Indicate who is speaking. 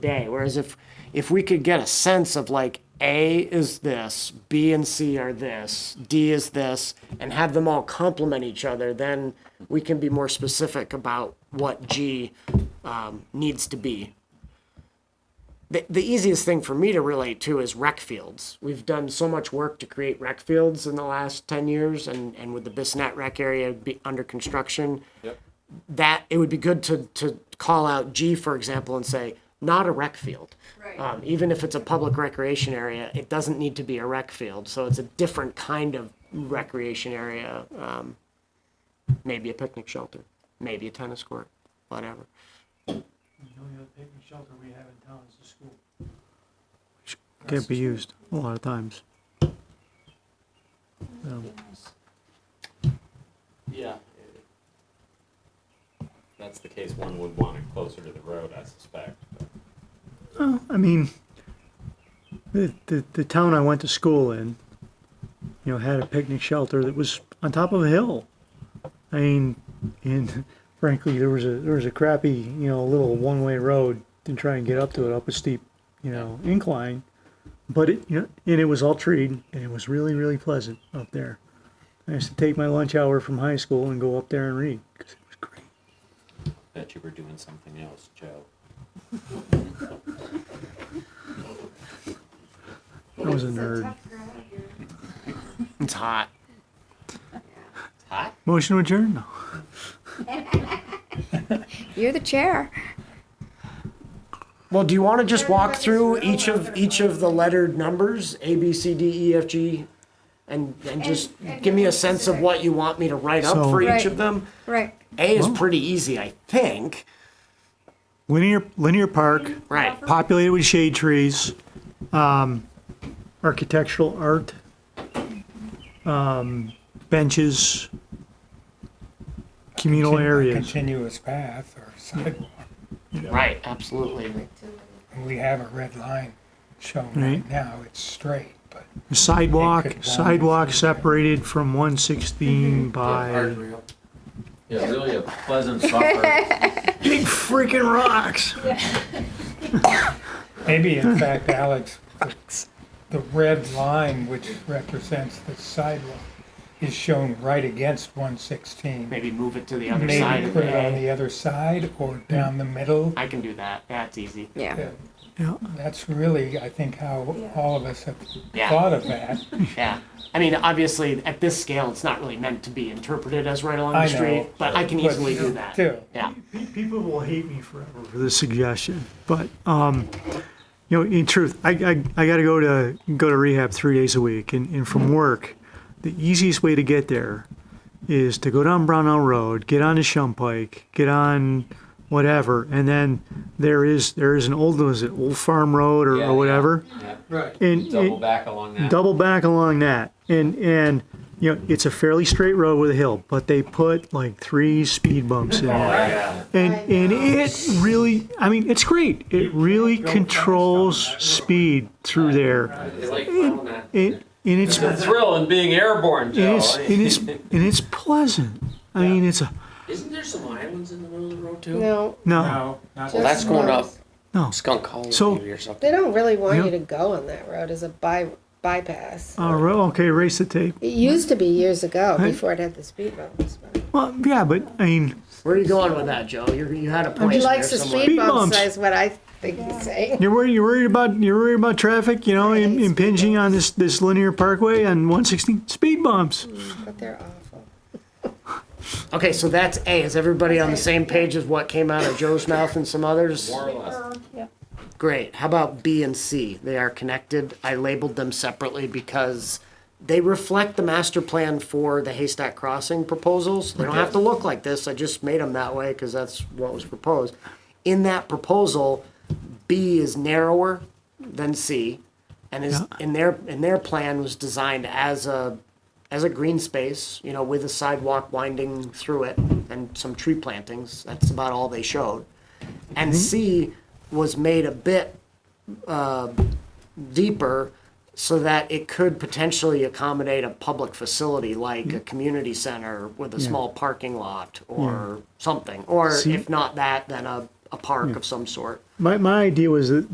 Speaker 1: day. Whereas if, if we could get a sense of like, A is this, B and C are this, D is this, and have them all complement each other, then we can be more specific about what G um, needs to be. The, the easiest thing for me to relate to is rec fields. We've done so much work to create rec fields in the last 10 years, and, and with the Bisnet rec area be under construction,
Speaker 2: Yep.
Speaker 1: that it would be good to, to call out G, for example, and say, not a rec field.
Speaker 3: Right.
Speaker 1: Um, even if it's a public recreation area, it doesn't need to be a rec field. So it's a different kind of recreation area. Um, maybe a picnic shelter, maybe a tennis court, whatever.
Speaker 4: The only other picnic shelter we have in town is the school.
Speaker 5: Can't be used a lot of times.
Speaker 2: Yeah. If That's the case, one would want it closer to the road, I suspect. but-
Speaker 5: I mean, the, the, the town I went to school in, you know, had a picnic shelter that was on top of a hill. I mean, and frankly, there was a, there was a crappy, you know, little one-way road to try and get up to it, up a steep, you know, incline. But it, you know, and it was all treed and it was really, really pleasant up there. I used to take my lunch hour from high school and go up there and read because it was great.
Speaker 2: Bet you were doing something else, Joe.
Speaker 5: I was a nerd.
Speaker 1: It's hot.
Speaker 2: It's hot?
Speaker 5: Motion to adjourn? No.
Speaker 3: You're the chair.
Speaker 1: Well, do you want to just walk through each of, each of the lettered numbers, A, B, C, D, E, F, G? And, and just
Speaker 3: and
Speaker 1: give me a
Speaker 3: more
Speaker 1: sense of
Speaker 3: specific.
Speaker 1: what you want me to write up
Speaker 5: So-
Speaker 1: for each
Speaker 3: Right.
Speaker 1: of them?
Speaker 3: Right.
Speaker 1: A is pretty easy, I think.
Speaker 5: Linear, linear park.
Speaker 1: Right.
Speaker 5: populated with shade trees, um, architectural art, um, benches, communal areas.
Speaker 4: Continuous path or sidewalk,
Speaker 1: Right, absolutely.
Speaker 4: and we have a red line shown
Speaker 5: Right.
Speaker 4: right now, it's straight, but.
Speaker 5: Sidewalk,
Speaker 4: It could wander
Speaker 5: sidewalk
Speaker 4: through.
Speaker 5: separated from one sixteen by
Speaker 6: Yeah, really a pleasant supper.
Speaker 5: big freaking rocks.
Speaker 4: Maybe in fact, Alex, the- the red line which represents the sidewalk is shown right against one sixteen.
Speaker 1: Maybe move it to the other side
Speaker 4: Maybe
Speaker 1: of
Speaker 4: put it on
Speaker 1: the A.
Speaker 4: the other side or down the middle.
Speaker 1: I can do that. That's easy.
Speaker 3: Yeah.
Speaker 5: Yeah.
Speaker 4: That's really, I think, how all of us have
Speaker 1: Yeah.
Speaker 4: thought of that.
Speaker 1: Yeah. I mean, obviously, at this scale, it's not really meant to be interpreted as right along the
Speaker 4: I know,
Speaker 1: street, but I can
Speaker 4: but
Speaker 1: easily do that.
Speaker 4: still.
Speaker 1: Yeah.
Speaker 5: People will hate me forever for this suggestion, but, um, you know, in truth, I, I, I gotta go to, go to rehab three days a week, and, and from work, the easiest way to get there is to go down Brownell Road, get on to Shumpike, get on whatever, and then there is, there is an old, was it Old Farm Road or,
Speaker 6: Yeah,
Speaker 5: or
Speaker 6: yeah.
Speaker 5: whatever?
Speaker 2: Yeah.
Speaker 4: Right.
Speaker 5: And-
Speaker 2: Double back along that.
Speaker 5: double back along that and and you know it's a fairly straight road with a hill but they put like three speed bumps in there
Speaker 2: Yeah.
Speaker 5: and and it really i mean it's great it really controls speed through there
Speaker 2: It's like, well, nah.
Speaker 5: it and it's
Speaker 6: The
Speaker 5: and
Speaker 6: thrill in being airborne, Joe.
Speaker 5: it's and it's and it's pleasant i mean it's a
Speaker 6: Isn't there some islands in the middle of the road too?
Speaker 7: No,
Speaker 5: no
Speaker 4: No, not
Speaker 7: Well, that's going up.
Speaker 5: no
Speaker 6: Skunk Hollow
Speaker 5: So-
Speaker 6: maybe or something.
Speaker 7: they don't really want
Speaker 5: Yeah.
Speaker 7: you to go on that road as a by, bypass.
Speaker 5: uh, ro- okay erase the tape
Speaker 7: It used to be years ago
Speaker 5: Right.
Speaker 7: before it had the speed bumps. but-
Speaker 5: well yeah but i mean
Speaker 1: Where are you going with that, Joe? You're, you had a point
Speaker 7: He
Speaker 1: there
Speaker 7: likes the
Speaker 1: somewhere.
Speaker 7: speed
Speaker 5: Speed bumps.
Speaker 7: bumps, is what I think he's saying.
Speaker 5: you're worried you're worried about you're worried about traffic you know im- impinging on this this linear parkway on 116 speed bumps
Speaker 7: But they're awful.
Speaker 1: Okay, so that's A. Is everybody on the same page as what came out of Joe's mouth and some others?
Speaker 2: More or less.
Speaker 1: Great. How about B and C? They are connected. I labeled them separately because they reflect the master plan for the Haystack Crossing proposals. They don't have to look like this. I just made them that way because that's what was proposed. In that proposal, B is narrower than C and is in their in their plan was designed as a as a green space, you know, with a sidewalk winding through it and some tree plantings. That's about all they showed and C was made a bit uh, deeper so that it could potentially accommodate a public facility like a community center with a small parking lot or something. Or
Speaker 5: See-
Speaker 1: if not that, then a, a park of some sort.
Speaker 5: My, my idea was that